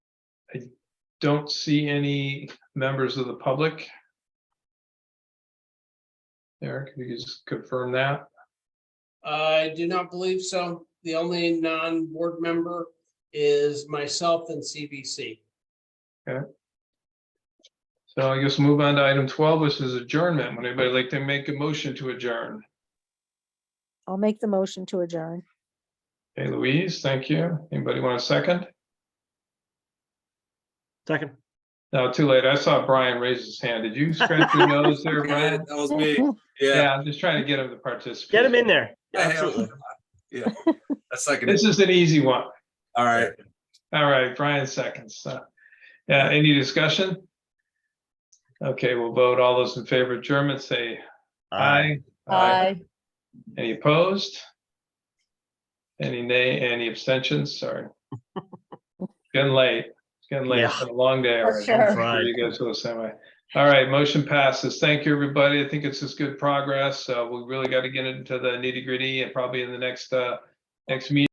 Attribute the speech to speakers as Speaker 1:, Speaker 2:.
Speaker 1: I don't see any members of the public. Eric, if you could just confirm that.
Speaker 2: I do not believe so. The only non-board member is myself and CBC.
Speaker 1: So I guess move on to item twelve, which is adjournment. Would anybody like to make a motion to adjourn?
Speaker 3: I'll make the motion to adjourn.
Speaker 1: Hey Louise, thank you. Anybody want a second?
Speaker 4: Second.
Speaker 1: No, too late. I saw Brian raise his hand. Did you scratch your nose there, Brian?
Speaker 5: That was me. Yeah.
Speaker 1: Yeah, I'm just trying to get him to participate.
Speaker 4: Get him in there.
Speaker 5: I have-
Speaker 4: Absolutely.
Speaker 5: Yeah. A second.
Speaker 1: This is an easy one.
Speaker 5: All right.
Speaker 1: All right, Brian seconds. so. Yeah, any discussion? Okay, we'll vote. All those in favor of adjournment, say aye. Any opposed? Any nay, any abstentions? Sorry. It's Getting late. It's getting late. It's been a long day already.
Speaker 3: sure.
Speaker 1: I'm sure You guys feel the same way. All right, motion passes. Thank you, everybody. I think it's just good progress. Uh, we really got to get into the nitty gritty and probably in the next, uh, next meeting.